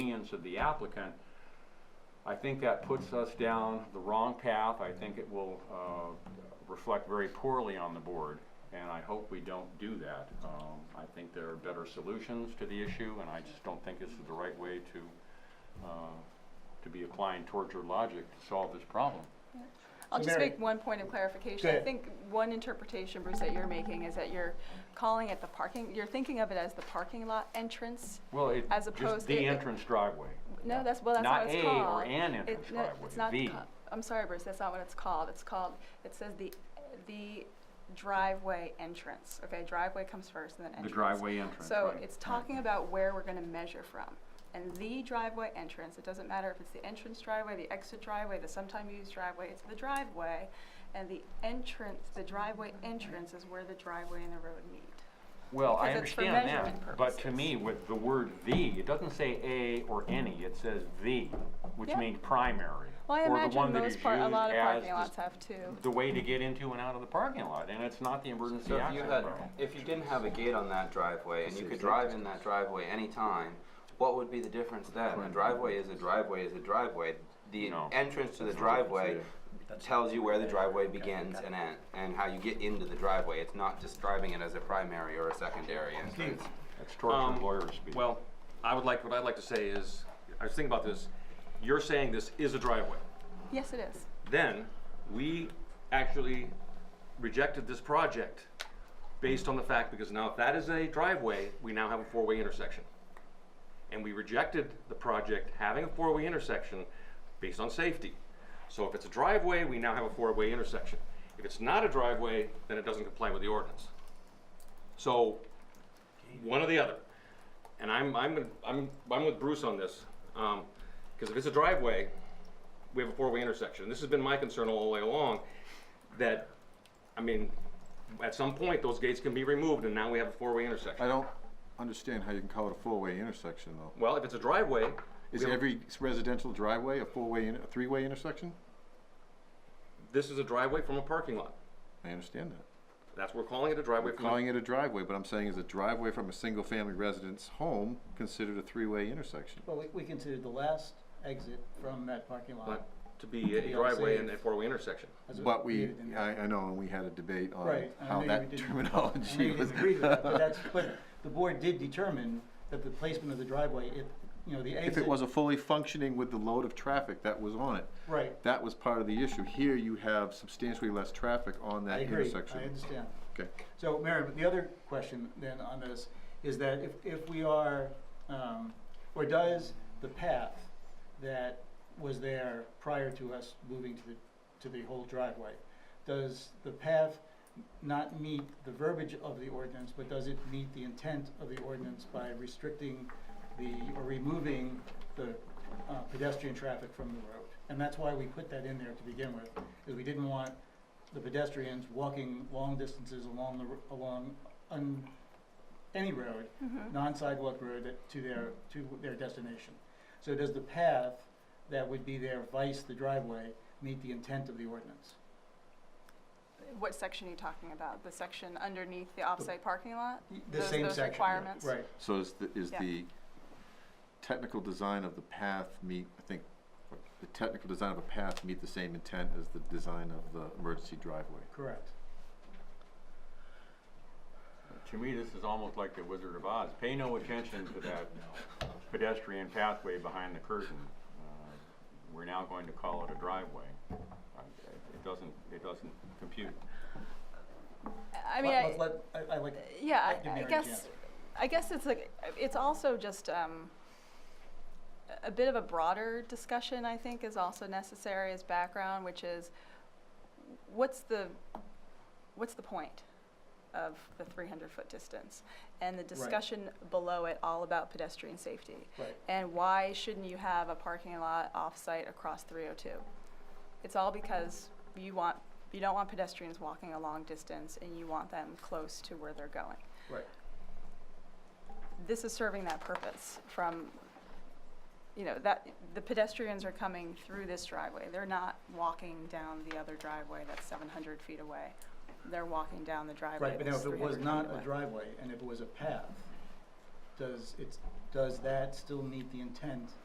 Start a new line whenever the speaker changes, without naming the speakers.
hands of the applicant, I think that puts us down the wrong path. I think it will uh, reflect very poorly on the board, and I hope we don't do that. Um, I think there are better solutions to the issue, and I just don't think this is the right way to, uh, to be applying torture logic to solve this problem.
I'll
So
just
Mary-
make one point of
Go
clarification. I
ahead.
think one interpretation, Bruce, that you're making is that you're calling it the parking, you're thinking of it as the parking lot entrance.
Well, it,
As
just
opposed to-
the entrance driveway.
No, that's, well, that's not what it's called.
Not A or an
It-
entrance
no,
driveway,
It's not,
the.
ca- I'm sorry, Bruce, that's not what it's called. It's called, it says the, the driveway entrance, okay? Driveway comes first and then
The
entrance.
driveway entrance,
So
right.
it's talking about where we're gonna measure from. And the driveway entrance, it doesn't matter if it's the entrance driveway, the exit driveway, the sometime used driveway, it's the driveway. And the entrance, the driveway entrance is where the driveway and the road meet.
Well, I
because it's for
understand
measurement
that, but to
purposes.
me, with the word "the," it doesn't say "a" or "any," it says "the," which
Yeah.
means primary.
Well, I
or the
imagine
one that
most
is
part, a
used
lot of
as
parking
the-
lots have too.
The way to get into and out of the parking lot, and it's not the emergency
So if you
access
had,
road.
if you didn't have a gate on that driveway and you could drive in that driveway anytime, what would be the difference then? A driveway is a driveway is a driveway. The
No.
entrance to the driveway tells you where the driveway begins and end, and how you get into the driveway. It's not describing it as a primary or a secondary entrance.
That's torture
Um,
lawyer speak.
Well, I would like, what I'd like to say is, I was thinking about this, you're saying this is a driveway.
Yes, it is.
Then, we actually rejected this project based on the fact, because now if that is a driveway, we now have a four-way intersection. And we rejected the project having a four-way intersection based on safety. So if it's a driveway, we now have a four-way intersection. If it's not a driveway, then it doesn't comply with the ordinance. So, one or the other. And I'm, I'm, I'm, I'm with Bruce on this, um, because if it's a driveway, we have a four-way intersection. This has been my concern all the way along, that, I mean, at some point, those gates can be removed, and now we have a four-way
I
intersection.
don't understand how you can call it a four-way intersection, though.
Well, if it's a driveway, we
Is
have-
every residential driveway a four-way, in- a three-way intersection?
this is a driveway from a parking lot.
I understand that.
That's, we're calling it a driveway
We're
from, a-
calling it a driveway, but I'm saying is a driveway from a single-family residence home considered a three-way intersection?
Well, we, we considered the last exit from that parking lot.
but to be
To
a
be
driveway
unsafe.
and a four-way intersection.
as it
But we,
appeared in-
I, I know, and we had a debate on
Right, and I know
how
you
that
didn't- I know
terminology
you
was.
didn't agree with that, but that's, but the board did determine that the placement of the driveway, it, you know, the exit.
If it was a fully functioning with the load of traffic that was on it,
Right,
that was part of the issue. Here, you have substantially less traffic on
I
that
agree,
intersection.
I understand.
Okay.
So, Mary, but the other question then on this is that if, if we are, um, or does the path that was there prior to us moving to the, to the whole driveway, does the path not meet the verbiage of the ordinance, but does it meet the intent of the ordinance by restricting the, or removing the uh, pedestrian traffic from the road? And that's why we put that in there to begin with, is we didn't want the pedestrians walking long distances along the, r- along, on any road,
Mm-hmm.
non-sidewalk road that- to their, to their destination. So does the path that would be there vice the driveway meet the intent of the ordinance?
What section are you talking about? The section underneath the off-site parking lot?
The
Those-
same
those
section.
requirements?
Right,
So is the, is
Yeah.
the technical design of the path meet, I think, the technical design of a path meet the same intent as the design of the emergency driveway?
correct.
To me, this is almost like the Wizard of Oz. Pay no attention to that pedestrian pathway behind the curtain. Uh, We're now going to call it a driveway. Uh, It doesn't, it doesn't compute.
I mean, I,
Let-
Uh,
let- let- I- I like.
yeah,
let
I-
Mary
I
Jane.
guess, I guess it's like, it's also just, um, a- a bit of a broader discussion, I think, is also necessary as background, which is, what's the, what's the point of the three hundred foot distance? And the discussion below it all about pedestrian safety.
Right.
And why shouldn't you have a parking lot off-site across three oh two? It's all because you want, you don't want pedestrians walking a long distance and you want them close to where they're going.
Right.
This is serving that purpose from, you know, that, the pedestrians are coming through this driveway. They're not walking down the other driveway that's seven hundred feet away. They're walking down the driveway
Right, but now
that's
if it
300
was
feet
not
away.
a driveway and if it was a path, does it's, does that still meet the intent